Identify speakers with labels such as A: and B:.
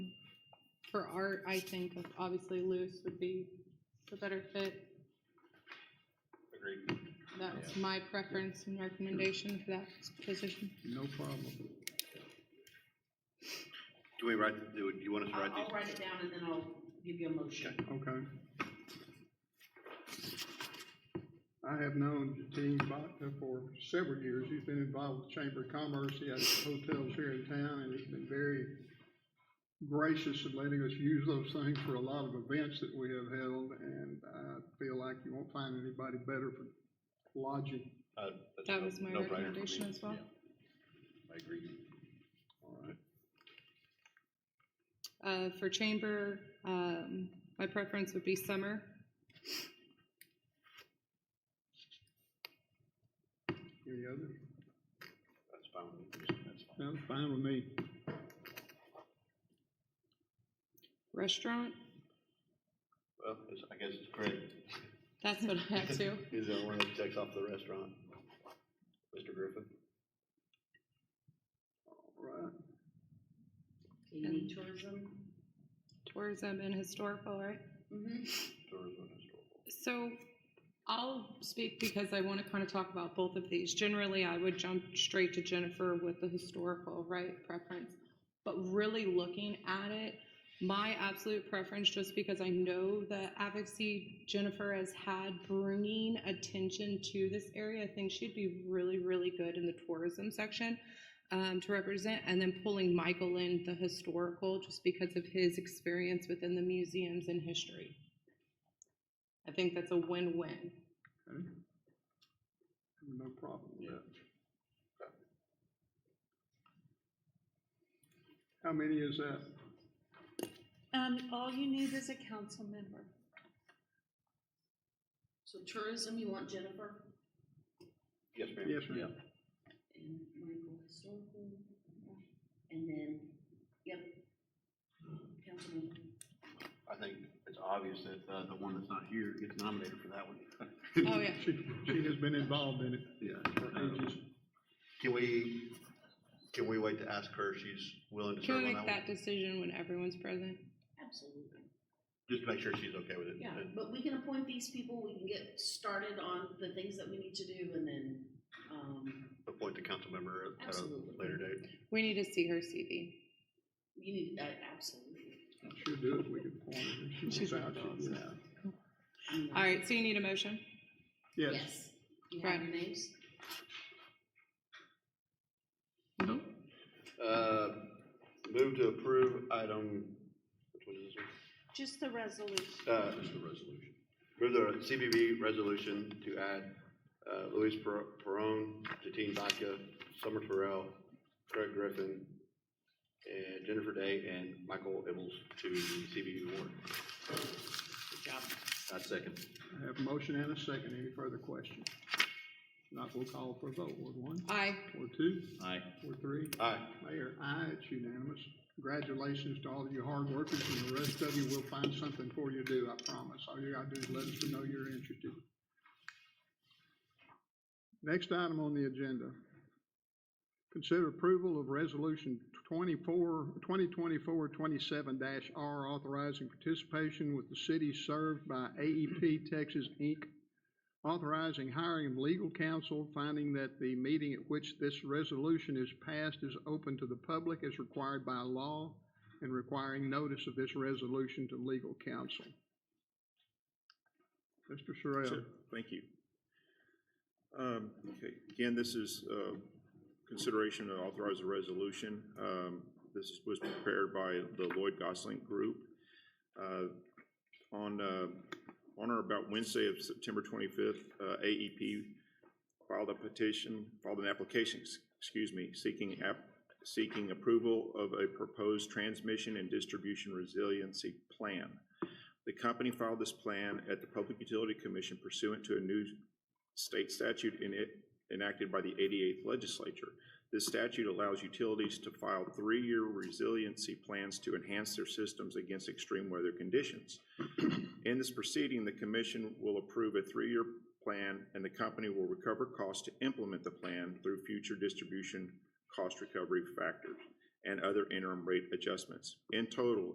A: for art, I think obviously loose would be the better fit.
B: Agreed.
A: That's my preference and recommendation for that position.
C: No problem.
B: Do we write, do you want us to
D: I'll,
B: write
D: I'll
B: these?
D: write it down and then I'll give you a motion.
C: Okay. I have known Gene Botta for several years. He's been involved with Chamber of Commerce. He has hotels here in town and he's been very gracious in letting us use those things for a lot of events that we have held. And I feel like you won't find anybody better for lodging.
B: Uh, that's
A: That
B: no-
A: was my
B: no-brainer for me.
A: recommendation as well.
B: Yeah, I agree.
C: All right.
A: Uh, for chamber, um, my preference would be summer.
C: Any others?
B: That's fine with me. That's fine.
C: Sounds fine with me.
A: Restaurant,
B: Well, it's- I guess it's Craig.
A: that's what I have too.
B: He's the one that checks off the restaurant. Mr. Griffin?
C: All right.
D: You need tourism?
A: Tourism and historical, right?
D: Mm-hmm.
B: Tourism and historical.
A: So I'll speak because I want to kind of talk about both of these. Generally, I would jump straight to Jennifer with the historical, right, preference. But really looking at it, my absolute preference, just because I know that advocacy Jennifer has had bringing attention to this area, I think she'd be really, really good in the tourism section um, to represent. And then pulling Michael in the historical, just because of his experience within the museums and history. I think that's a win-win.
C: Okay. No problem with
B: Yeah.
C: that. How many is that?
E: Um, all you need is a council member.
D: So tourism, you want Jennifer
B: Yes, ma'am.
C: Yes, ma'am.
B: Yeah.
D: and Michael historical, and then, yep. Councilmember.
B: I think it's obvious that, uh, the one that's not here gets nominated for that one.
A: Oh, yeah.
C: She, she has been involved in it
B: Yeah.
C: for
B: Um,
C: ages.
B: Can we, can we wait to ask her if she's willing to
A: Can
B: serve
A: we
B: on
A: make
B: that one?
A: that decision when everyone's present?
D: Absolutely.
B: Just to make sure she's okay with it.
D: Yeah,
B: And-
D: but we can appoint these people, we can get started on the things that we need to do and then, um,
B: appoint the council member at a
D: Absolutely.
B: later date.
A: We need to see her CV.
D: you need, uh, absolutely.
C: She'll do it, we can point her. If She
A: She's
C: was out, she was out.
A: All right, so you need a motion?
C: Yes,
D: Yes. You have your names?
B: Uh, Move to approve item, which one is this one?
E: Just the resolution.
B: Uh, Move the CBB resolution to add uh, Luis Per- Peron, Jatin Baca, Summer Terrell, Craig Griffin, and Jennifer Day and Michael Ibbles to the CBB board.
D: Good job.
B: I second.
C: I have a motion and a second. Any further questions? Not, we'll call for a vote. Ward one,
A: Aye.
C: Ward two,
B: Aye.
C: Ward three.
B: Aye.
C: Mayor, aye, it's unanimous. Congratulations to all of you hard workers, and the rest of you, we'll find something for you to do, I promise. All you gotta do is let us know you're interested. Next item on the agenda. Consider approval of Resolution 24, 2024-27-R, authorizing participation with the city served by AEP Texas, Inc., authorizing hiring of legal counsel, finding that the meeting at which this resolution is passed is open to the public as required by law, and requiring notice of this resolution to legal counsel. Mr. Sorrell,
F: Sure, Thank you. Um, Okay, again, this is uh, consideration to authorize a resolution. Um, This was prepared by the Lloyd Gosling Group. Uh, On, uh, on or about Wednesday of September 25th, uh, AEP filed a petition, filed an application, ex- excuse me, seeking app, seeking approval of a proposed transmission and distribution resiliency plan. The company filed this plan at the Public Utility Commission pursuant to a new state statute in it- enacted by the 88th legislature. This statute allows utilities to file three-year resiliency plans to enhance their systems against extreme weather conditions. In this proceeding, the commission will approve a three-year plan, and the company will recover costs to implement the plan through future distribution cost recovery factors and other interim rate adjustments. In total,